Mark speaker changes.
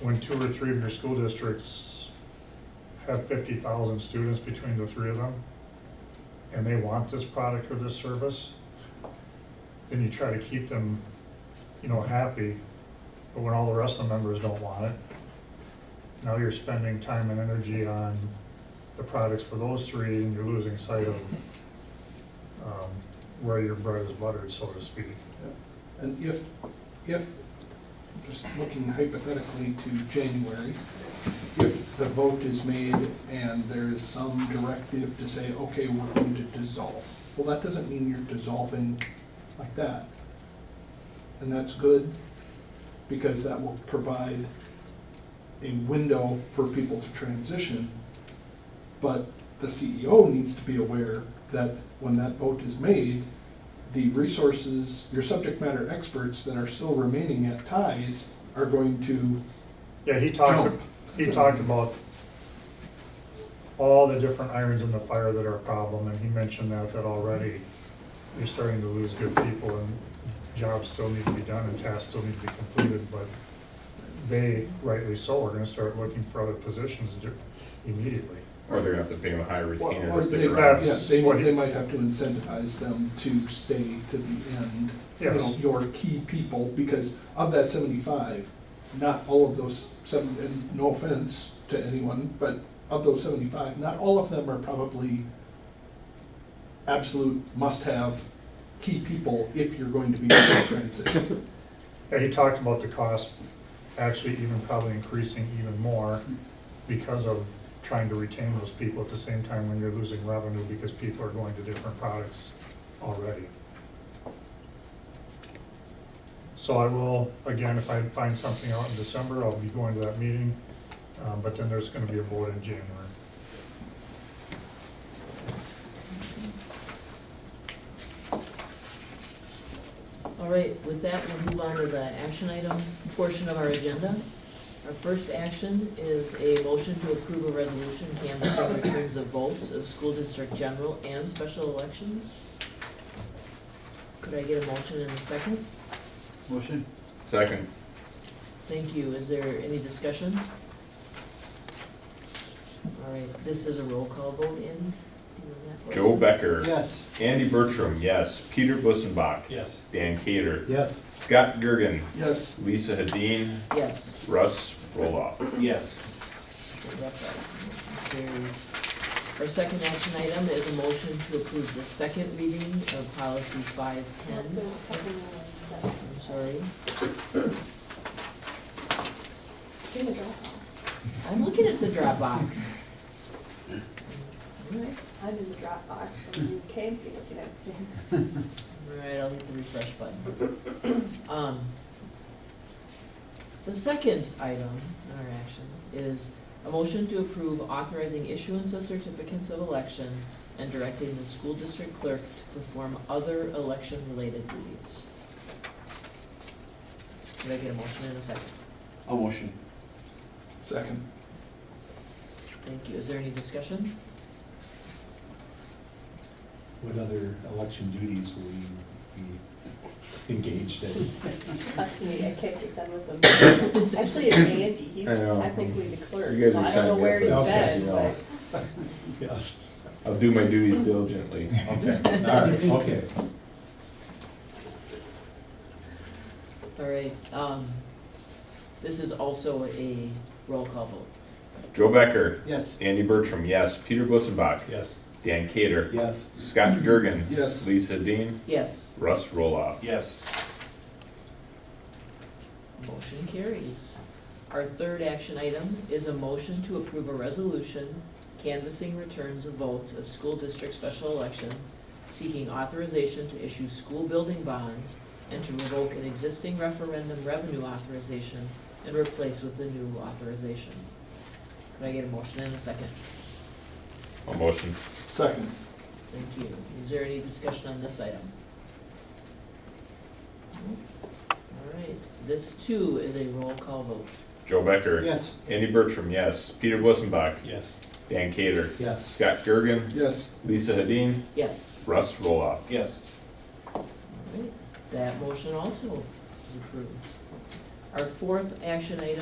Speaker 1: when two or three of your school districts have fifty thousand students between the three of them, and they want this product or this service, then you try to keep them, you know, happy, but when all the rest of the members don't want it, now you're spending time and energy on the products for those three, and you're losing sight of um, where your bread is buttered, so to speak.
Speaker 2: And if, if, just looking hypothetically to January, if the vote is made and there is some directive to say, okay, we're going to dissolve, well, that doesn't mean you're dissolving like that. And that's good, because that will provide a window for people to transition. But the CEO needs to be aware that when that vote is made, the resources, your subject matter experts that are still remaining at ties are going to,
Speaker 1: Yeah, he talked,
Speaker 2: Jump.
Speaker 1: he talked about all the different irons in the fire that are a problem, and he mentioned that, that already you're starting to lose good people, and jobs still need to be done, and tasks still need to be completed, but they, rightly so, are gonna start looking for other positions ju- immediately.
Speaker 3: Or they're gonna have to pay them a higher
Speaker 2: or
Speaker 3: retainer
Speaker 2: or
Speaker 3: to
Speaker 2: they,
Speaker 3: stick
Speaker 1: that's-
Speaker 3: around.
Speaker 2: yeah, they,
Speaker 1: what he-
Speaker 2: they might have to incentivize them to stay to the end. You know,
Speaker 1: Yes.
Speaker 2: your key people, because of that seventy-five, not all of those seven, and no offense to anyone, but of those seventy-five, not all of them are probably absolute must-have key people if you're going to be in that transition.
Speaker 1: Yeah, he talked about the cost actually even probably increasing even more because of trying to retain those people at the same time when you're losing revenue because people are going to different products already. So I will, again, if I find something out in December, I'll be going to that meeting, uh, but then there's gonna be a vote in January.
Speaker 4: All right, with that, we'll move on to the action item portion of our agenda. Our first action is a motion to approve a resolution canvassing returns of votes of school district general and special elections. Could I get a motion and a second?
Speaker 5: Motion?
Speaker 3: Second,
Speaker 4: Thank you. Is there any discussion? All right, this is a roll call vote in. Do you know that for us?
Speaker 3: Joe Becker.
Speaker 5: Yes.
Speaker 3: Andy Bertram, yes. Peter Bussenbach.
Speaker 5: Yes.
Speaker 3: Dan Cater.
Speaker 5: Yes.
Speaker 3: Scott Gergen.
Speaker 2: Yes,
Speaker 3: Lisa Hadeen.
Speaker 4: Yes.
Speaker 3: Russ Roloff.
Speaker 5: Yes.
Speaker 4: Carries. Our second action item is a motion to approve the second reading of policy five ten. I'm sorry,
Speaker 6: I'm
Speaker 4: I'm looking at the Dropbox. Alright,
Speaker 6: in the Dropbox, and you can't be looking at it.
Speaker 4: alright, I'll hit the refresh button. Um, The second item in our action is a motion to approve authorizing issuance of certificates of election and directing the school district clerk to perform other election-related duties. Did I get a motion in a second?
Speaker 5: I'll motion.
Speaker 2: second.
Speaker 4: Thank you. Is there any discussion?
Speaker 7: What other election duties will you be engaged in?
Speaker 6: Trust me, I can't get done with them. Actually, it's Andy, he's
Speaker 3: I know.
Speaker 6: technically the clerk,
Speaker 3: You guys
Speaker 6: so
Speaker 3: are
Speaker 6: I don't know
Speaker 3: signed
Speaker 6: where
Speaker 3: up
Speaker 6: he's
Speaker 7: for this,
Speaker 6: been,
Speaker 3: you know.
Speaker 6: but
Speaker 7: Yeah.
Speaker 3: I'll do my duties diligently.
Speaker 7: Okay, all right, okay.
Speaker 4: All right, um, this is also a roll call vote.
Speaker 3: Joe Becker.
Speaker 5: Yes.
Speaker 3: Andy Bertram, yes. Peter Bussenbach.
Speaker 5: Yes.
Speaker 3: Dan Cater.
Speaker 7: Yes,
Speaker 3: Scott Gergen.
Speaker 2: Yes.
Speaker 3: Lisa Hadeen.
Speaker 4: Yes,
Speaker 3: Russ Roloff.
Speaker 5: Yes.
Speaker 4: motion carries. Our third action item is a motion to approve a resolution canvassing returns of votes of school district special election, seeking authorization to issue school building bonds and to revoke an existing referendum revenue authorization and replace with the new authorization. Could I get a motion in a second?
Speaker 3: I'll motion.
Speaker 2: Second.
Speaker 4: Thank you. Is there any discussion on this item? All right, this too is a roll call vote.
Speaker 3: Joe Becker.
Speaker 5: Yes.
Speaker 3: Andy Bertram, yes. Peter Bussenbach.
Speaker 5: Yes.
Speaker 3: Dan Cater.
Speaker 7: yes,
Speaker 3: Scott Gergen.
Speaker 2: Yes,
Speaker 3: Lisa Hadeen.
Speaker 4: Yes.
Speaker 3: Russ Roloff.
Speaker 5: Yes.
Speaker 4: All right, that motion also is approved. Our fourth action item